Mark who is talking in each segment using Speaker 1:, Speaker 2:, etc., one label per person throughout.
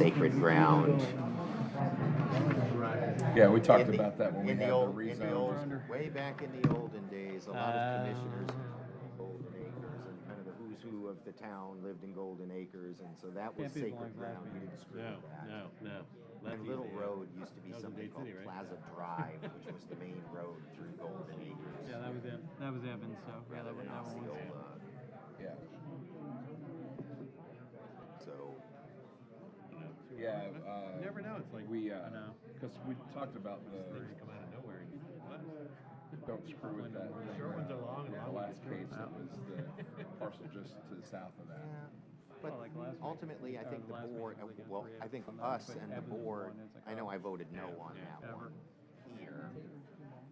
Speaker 1: sacred ground.
Speaker 2: Yeah, we talked
Speaker 1: In the-
Speaker 2: about that when we
Speaker 1: in
Speaker 2: had the
Speaker 1: old- in the old-
Speaker 2: rezone.
Speaker 1: Way back in the olden days, a lot
Speaker 3: Oh.
Speaker 1: of commissioners, in Golden Acres, and kind of the who's who of the town lived in Golden Acres, and so that was
Speaker 3: Can't be
Speaker 1: sacred
Speaker 3: blind
Speaker 1: ground. You
Speaker 3: grabbing.
Speaker 1: didn't screw
Speaker 4: No,
Speaker 1: with that.
Speaker 4: no, no. That's
Speaker 1: And Little
Speaker 4: easy, yeah.
Speaker 1: Road used to be
Speaker 4: That was in
Speaker 1: something
Speaker 4: Dade
Speaker 1: called
Speaker 4: City, right?
Speaker 1: Plaza Drive, which was the main road through Golden Acres.
Speaker 3: Yeah, that was Ev- that was Evans. So yeah, that
Speaker 1: rather
Speaker 3: was
Speaker 1: than
Speaker 3: that one. was-
Speaker 1: Osceola.
Speaker 2: Yeah,
Speaker 1: So,
Speaker 2: yeah.
Speaker 4: You
Speaker 2: Uh,
Speaker 4: never know. It's like
Speaker 2: we, uh,
Speaker 4: I know.
Speaker 2: because we talked about
Speaker 4: These
Speaker 2: the
Speaker 4: things come out of nowhere. and you're like, what?
Speaker 2: don't screw with that.
Speaker 4: The
Speaker 2: thing,
Speaker 4: short ones
Speaker 2: uh,
Speaker 4: are long
Speaker 2: in
Speaker 4: and long
Speaker 2: The
Speaker 4: ones
Speaker 2: last
Speaker 4: are short.
Speaker 2: case, it was the parcel just to the south of
Speaker 1: yeah,
Speaker 2: that.
Speaker 1: but
Speaker 3: like last week,
Speaker 1: ultimately, I
Speaker 3: or
Speaker 1: think the
Speaker 3: last week,
Speaker 1: board,
Speaker 3: the week after
Speaker 1: well,
Speaker 3: we
Speaker 1: I
Speaker 3: had
Speaker 1: think
Speaker 3: some that
Speaker 1: us
Speaker 3: put
Speaker 1: and the
Speaker 3: Evans in
Speaker 1: board,
Speaker 3: one, it's like,
Speaker 1: I know
Speaker 3: oh,
Speaker 1: I voted no
Speaker 4: yeah,
Speaker 1: on
Speaker 4: yeah,
Speaker 1: that
Speaker 3: ever.
Speaker 1: one here,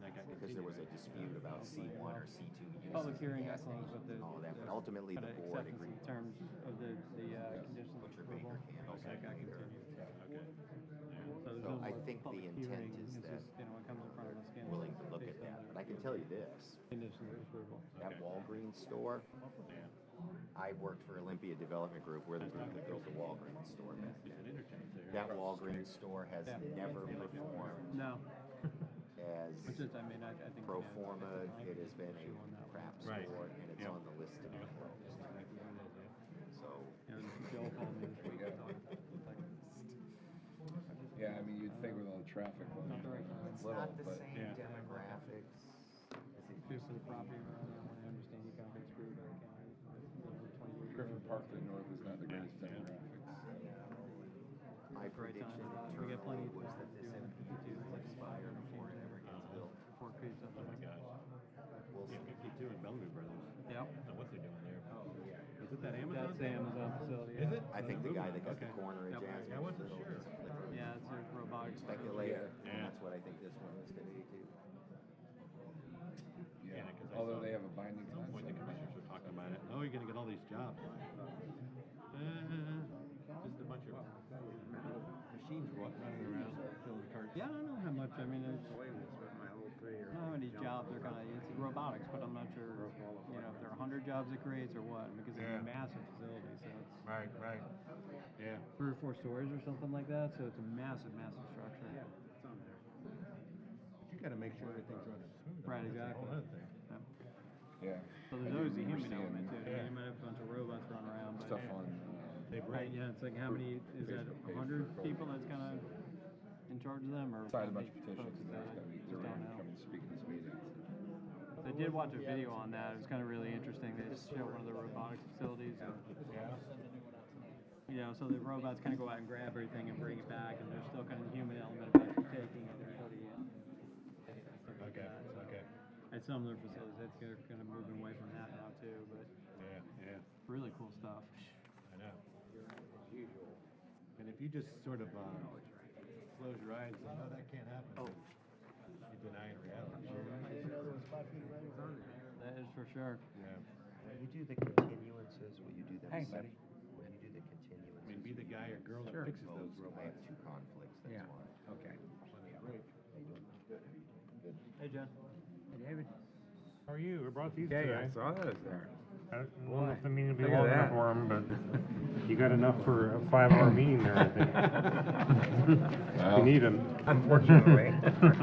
Speaker 4: That got
Speaker 1: because there was a
Speaker 4: continued.
Speaker 1: dispute about C one or C two uses.
Speaker 3: Public hearing I
Speaker 1: gas
Speaker 3: closed,
Speaker 1: stations
Speaker 3: but the
Speaker 1: and All that,
Speaker 3: the
Speaker 1: but ultimately
Speaker 3: kinda
Speaker 1: the board
Speaker 3: acceptance
Speaker 1: agreed.
Speaker 3: in terms of the the uh, conditions of
Speaker 1: Butcher
Speaker 3: approval.
Speaker 1: Baker can.
Speaker 3: That got
Speaker 1: Baker.
Speaker 3: continued.
Speaker 4: Okay.
Speaker 3: So, there's
Speaker 1: So
Speaker 3: no
Speaker 1: I
Speaker 3: more
Speaker 1: think the
Speaker 3: public
Speaker 1: intent
Speaker 3: hearing,
Speaker 1: is
Speaker 3: it's
Speaker 1: that
Speaker 3: just, you know, it comes in front of us again.
Speaker 1: Willing to look
Speaker 3: based
Speaker 1: at
Speaker 3: on
Speaker 1: that,
Speaker 3: the
Speaker 1: but I can tell you this,
Speaker 3: Conditions of approval.
Speaker 1: that
Speaker 4: Okay.
Speaker 1: Walgreens store,
Speaker 4: Yeah.
Speaker 1: I worked for Olympia Development Group, we're the group that built the Walgreens store back
Speaker 4: There's an
Speaker 1: then.
Speaker 4: interchange there.
Speaker 1: That Walgreens store has
Speaker 3: Yeah.
Speaker 1: never performed
Speaker 3: No, it's
Speaker 1: as
Speaker 3: just I mean I, I think
Speaker 1: pro
Speaker 3: yeah, it's-
Speaker 1: forma,
Speaker 3: it's an
Speaker 1: it has
Speaker 3: IP
Speaker 1: been
Speaker 3: issue on
Speaker 1: a
Speaker 3: that one.
Speaker 1: crap
Speaker 4: Right.
Speaker 1: store, and it's
Speaker 4: Yeah.
Speaker 1: on the list to be closed, so.
Speaker 3: And Joel called me this week.
Speaker 2: Yeah.
Speaker 3: and all that. It's like,
Speaker 2: Yeah, I mean, you'd think with all the traffic, well,
Speaker 3: Not the right one.
Speaker 2: it's
Speaker 1: It's
Speaker 2: little,
Speaker 1: not the
Speaker 2: but
Speaker 1: same
Speaker 4: Yeah.
Speaker 1: demographics.
Speaker 3: Here's the property around that one. I understand you got been screwed by the county. for over 20 years.
Speaker 2: Griffin Park to the north is not the greatest demographics.
Speaker 1: My
Speaker 3: Great
Speaker 1: prediction
Speaker 3: time. We get plenty
Speaker 1: internally was
Speaker 3: of time
Speaker 1: that
Speaker 3: to
Speaker 1: this
Speaker 3: do it.
Speaker 1: MPD
Speaker 3: Do
Speaker 1: will
Speaker 3: it.
Speaker 1: expire before it ever gets built.
Speaker 3: Four creeps up
Speaker 4: Oh my
Speaker 3: there.
Speaker 4: gosh.
Speaker 1: We'll
Speaker 4: Yeah,
Speaker 1: see.
Speaker 4: fifty-two and Bellevue Brothers.
Speaker 3: Yep.
Speaker 4: I don't know what they're doing there. Is it that Amazon?
Speaker 3: Oh, That's the
Speaker 4: thing?
Speaker 3: Amazon facility.
Speaker 4: Is
Speaker 3: yeah.
Speaker 4: it?
Speaker 1: I think the guy that got the
Speaker 4: Okay.
Speaker 1: corner at
Speaker 3: Yep.
Speaker 1: Jasmine.
Speaker 4: I wasn't
Speaker 1: Little
Speaker 4: sure.
Speaker 1: is a flipper.
Speaker 3: Yeah, it's a robotic.
Speaker 1: Speculator,
Speaker 2: Yeah.
Speaker 1: and
Speaker 4: Yeah.
Speaker 1: that's what I think this one is gonna be too.
Speaker 2: Yeah,
Speaker 4: Yeah, 'cause I
Speaker 2: although
Speaker 4: saw-
Speaker 2: they have a binding
Speaker 4: At some point, the
Speaker 2: concept.
Speaker 4: commissioners were talking about it. Oh, you're gonna get all these jobs. Uh, Just a bunch of machines wa- running around filling carts.
Speaker 3: Yeah, I don't know how much, I mean, it's,
Speaker 5: away with spent my whole
Speaker 3: I
Speaker 5: career.
Speaker 3: don't know how many jobs are gonna, it's robotics, but I'm not sure, you know, if there are hundred jobs it creates or what, because it's
Speaker 4: Yeah.
Speaker 3: a massive facility, so it's
Speaker 4: Right, right. Yeah.
Speaker 3: three or four stories or something like that, so it's a massive, massive structure.
Speaker 5: It's on there.
Speaker 4: But You gotta make sure everything's running smooth.
Speaker 3: Right,
Speaker 4: That's a
Speaker 3: exactly.
Speaker 4: whole other thing.
Speaker 3: Yeah.
Speaker 2: Yeah.
Speaker 3: So
Speaker 2: I
Speaker 3: there's
Speaker 2: do
Speaker 3: always the
Speaker 2: remember
Speaker 3: human element too,
Speaker 2: seeing
Speaker 3: I mean, you might have a bunch of robots running around, but.
Speaker 2: Stuff on, uh,
Speaker 4: They
Speaker 3: Right,
Speaker 4: bring,
Speaker 3: yeah, it's like how many, is that
Speaker 2: Facebook page
Speaker 3: hundred
Speaker 2: for-
Speaker 3: people that's kind of in charge of them or?
Speaker 2: signed a
Speaker 3: how
Speaker 2: bunch of
Speaker 3: many folks
Speaker 2: petitions and
Speaker 3: is
Speaker 2: there's
Speaker 3: that?
Speaker 2: gonna be,
Speaker 3: Just
Speaker 2: they're
Speaker 3: don't
Speaker 2: gonna
Speaker 3: know.
Speaker 2: come and speak at this meeting.
Speaker 3: I did watch a video on that. It was kind of really interesting. They just showed one of the robotics facilities. And, you know, so the robots kind of go out and grab everything and bring it back, and there's still kind of the human element of actually taking it and putting it.
Speaker 4: okay, okay.
Speaker 3: At some of their facilities, that's they're kind of moving away from that now too. But
Speaker 4: Yeah, yeah.
Speaker 3: really cool stuff.
Speaker 4: I know. And if you just sort of, uh, close your eyes, and, oh, that can't happen. Oh. You deny it reality.
Speaker 3: That is for sure.
Speaker 4: Yeah.
Speaker 1: When you do the continuances, will you do them?
Speaker 2: Hey,
Speaker 1: sep-
Speaker 2: buddy.
Speaker 1: When you do the
Speaker 4: I mean,
Speaker 1: continuances.
Speaker 4: be the guy or girl that
Speaker 1: will you
Speaker 4: fixes
Speaker 1: propose-
Speaker 4: those
Speaker 1: I have
Speaker 4: robots.
Speaker 1: two conflicts,
Speaker 2: Yeah,
Speaker 1: that's why.
Speaker 2: okay.
Speaker 3: Hey, John.
Speaker 2: David?
Speaker 6: How are you? We brought these
Speaker 5: Yeah,
Speaker 6: today.
Speaker 5: yeah, I saw those there.
Speaker 6: I don't know if the meeting will be
Speaker 5: Look at
Speaker 6: long
Speaker 5: that.
Speaker 6: enough for 'em, but you got enough for a five-hour meeting there, I think.
Speaker 2: Wow.
Speaker 6: You need them.
Speaker 5: Unfortunately.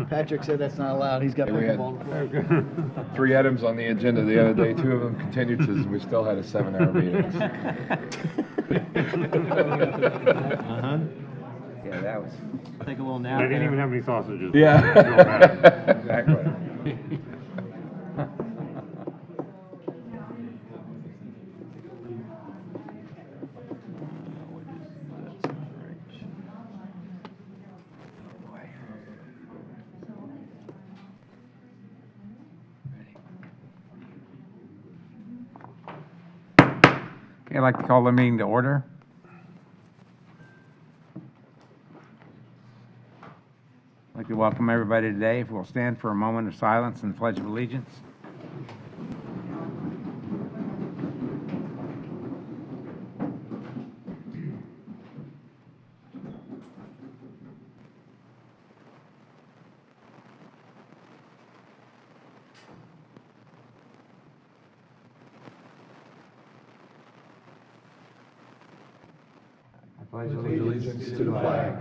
Speaker 7: Patrick said that's not allowed. He's got
Speaker 2: Yeah, we had-
Speaker 7: pickleball.
Speaker 6: Oh,
Speaker 2: Three items on the agenda the other day, two of them continuances, and we still had a seven-hour meeting.
Speaker 4: Uh-huh.
Speaker 5: Yeah, that was.
Speaker 3: Take a little nap.
Speaker 6: I didn't
Speaker 3: there.
Speaker 6: even have any sausages.
Speaker 2: Yeah. Exactly.
Speaker 5: Okay, I'd like to call the meeting to order. I'd like to welcome everybody today. If we'll stand for a moment of silence and pledge of allegiance. pledge allegiance to the flag